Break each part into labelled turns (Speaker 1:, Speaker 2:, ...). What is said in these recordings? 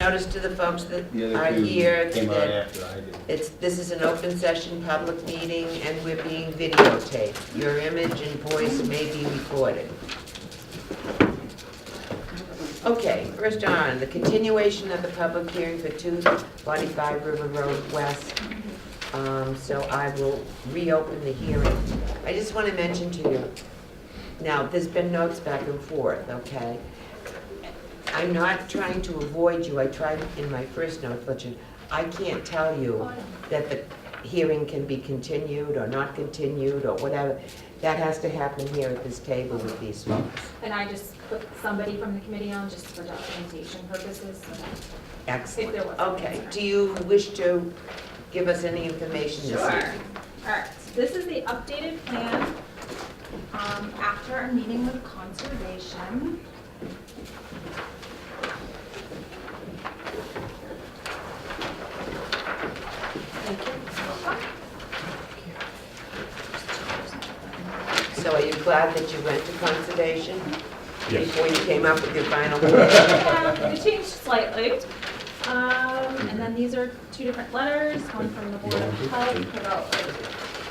Speaker 1: notice to the folks that
Speaker 2: The
Speaker 1: are
Speaker 2: other
Speaker 1: here
Speaker 2: two came on
Speaker 1: that
Speaker 2: after I did.
Speaker 1: it's, this is an open session, public meeting, and we're being videotaped. Your image and voice may be recorded. Okay, first on, the continuation of the public hearing for 245 River Road West. Um, So I will reopen the hearing. I just want to mention to you, now, there's been notes back and forth, okay? I'm not trying to avoid you, I tried in my first note, but you- I can't tell you that the hearing can be continued or not continued or whatever. That has to happen here at this table with these folks.
Speaker 3: And I just put somebody from the committee on just for documentation purposes, so that if
Speaker 1: Excellent.
Speaker 3: there was. an
Speaker 1: Okay,
Speaker 3: answer.
Speaker 1: do you wish to give us any information this
Speaker 3: Sure.
Speaker 1: evening?
Speaker 3: All right, so this is the updated plan um, after our meeting with conservation. Thank you.
Speaker 1: So are you glad that you went to conservation?
Speaker 4: Yes.
Speaker 1: Before you came up with your final? word?
Speaker 3: Yeah, It changed slightly. Um, And then these are two different letters, one from the Board of Health about,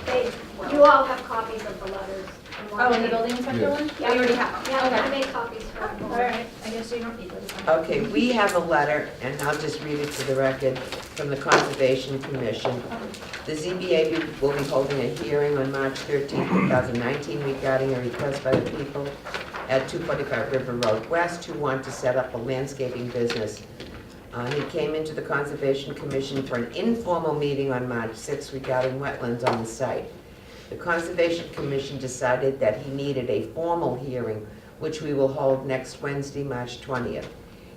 Speaker 5: They, you all have copies of the letters. and one
Speaker 3: oh, and the
Speaker 5: thing.
Speaker 3: building inspector one?
Speaker 5: Yeah.
Speaker 3: We already have.
Speaker 5: Yeah, I
Speaker 3: Okay.
Speaker 5: made copies for
Speaker 3: All
Speaker 5: everyone.
Speaker 3: right, Oh. I guess you don't need those.
Speaker 1: Okay, we have a letter, and I'll just read it to the record, from the Conservation Commission. The ZBA be- will be holding a hearing on March 13, 2019 regarding a request by the people at 245 River Road West who want to set up a landscaping business. Uh, He came into the Conservation Commission for an informal meeting on March 6 regarding wetlands on the site. The Conservation Commission decided that he needed a formal hearing, which we will hold next Wednesday, March 20th.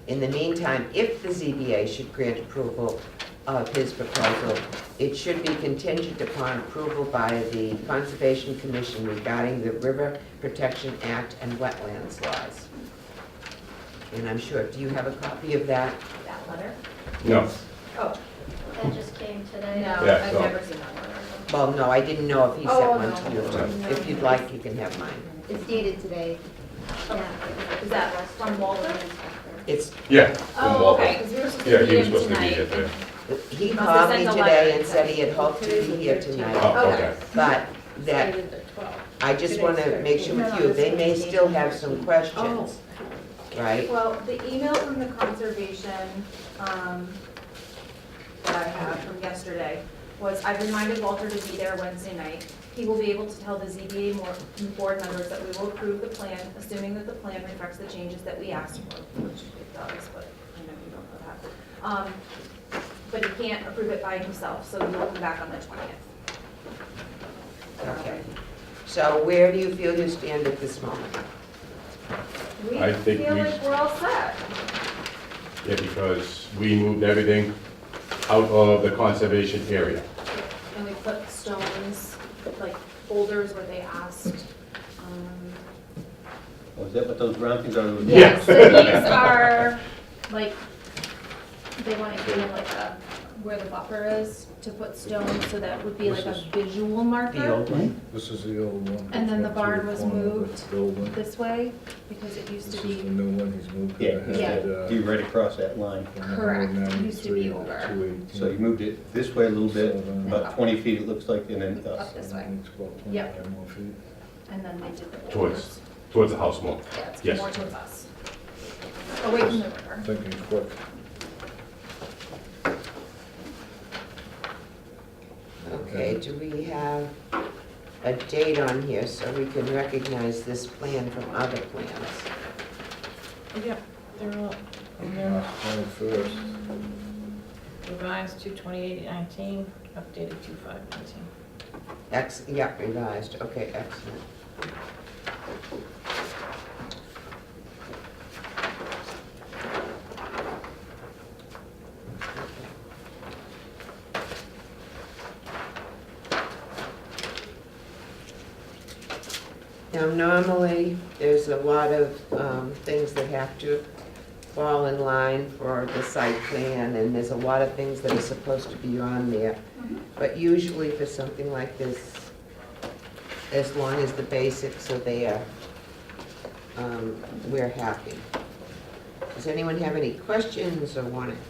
Speaker 1: In the meantime, if the ZBA should grant approval of his proposal, it should be contingent upon approval by the Conservation Commission regarding the River Protection Act and wetlands laws. And I'm sure, do you have a copy of that?
Speaker 3: That letter?
Speaker 4: No,
Speaker 3: Oh,
Speaker 5: That just came today.
Speaker 3: no,
Speaker 4: Yeah,
Speaker 3: I've
Speaker 4: so-
Speaker 3: never seen that letter.
Speaker 1: Well, no, I didn't know if he sent
Speaker 3: Oh,
Speaker 1: one
Speaker 3: no.
Speaker 1: to you.
Speaker 3: No.
Speaker 1: If you'd like, you can have mine.
Speaker 6: It's dated today.
Speaker 5: Yeah.
Speaker 3: Is that from Walter?
Speaker 1: It's,
Speaker 4: yeah. from
Speaker 3: Oh,
Speaker 4: Walton.
Speaker 3: okay, because we were supposed to
Speaker 4: Yeah,
Speaker 3: meet
Speaker 4: he was
Speaker 3: him
Speaker 4: supposed to be here
Speaker 3: tonight.
Speaker 4: today.
Speaker 1: he
Speaker 3: Must have
Speaker 1: called me
Speaker 3: sent a letter.
Speaker 1: today and said he had hoped to be here tonight,
Speaker 4: Oh, okay.
Speaker 1: but that I just want to make sure with you, they may still have some questions, right?
Speaker 3: Well, the email from the conservation, um, that I have from yesterday was, I've reminded Walter to be there Wednesday night. He will be able to tell the ZBA more, board members that we will approve the plan, assuming that the plan reflects the changes that we asked for, which it does, but I know you don't know that. Um, but he can't approve it by himself, so we will come back on the twentieth.
Speaker 1: Okay. So where do you feel you stand at this moment?
Speaker 3: We
Speaker 4: I think
Speaker 3: feel
Speaker 4: we-
Speaker 3: like we're all set.
Speaker 4: Yeah, because we moved everything out of the conservation area.
Speaker 3: And we put stones, like boulders where they asked. um,
Speaker 2: Oh, is that what those brown things are?
Speaker 4: Yeah.
Speaker 3: So these are, like, they want to give like a, where the buffer is to put stones, so that would be like a visual
Speaker 1: The
Speaker 3: marker
Speaker 1: old one?
Speaker 7: This is the old one.
Speaker 3: And then the barn was moved.
Speaker 7: Building.
Speaker 3: this way, because it used
Speaker 7: This
Speaker 3: to
Speaker 7: is the
Speaker 3: be,
Speaker 7: new one he's moved.
Speaker 2: Yeah,
Speaker 7: it had,
Speaker 3: Yeah.
Speaker 7: uh,
Speaker 2: Be right across that line.
Speaker 3: Correct. It used to be
Speaker 7: 193,
Speaker 3: over.
Speaker 7: 218.
Speaker 2: So you moved it this way a little bit,
Speaker 7: So then-
Speaker 2: about 20 feet it looks like, and then uh, up.
Speaker 3: Up this way.
Speaker 7: It's about
Speaker 3: Yep.
Speaker 7: 25 more feet.
Speaker 3: and then they did the
Speaker 4: Towards.
Speaker 3: boulders.
Speaker 4: Towards the house more.
Speaker 3: Yeah, it's
Speaker 4: Yes.
Speaker 3: more towards us. Away from the river.
Speaker 7: Thinking quick.
Speaker 1: Okay, do we have a date on here so we can recognize this plan from other plans?
Speaker 8: Yep, they're all, and they're
Speaker 7: March 21st.
Speaker 8: revised to 2819, updated to 519.
Speaker 1: Ex, yeah, revised, okay, excellent. Now, normally, there's a lot of um, things that have to fall in line for the site plan, and there's a lot of things that are supposed to be on there. But usually for something like this, as long as the basics are there, um, we're happy. Does anyone have any questions or want to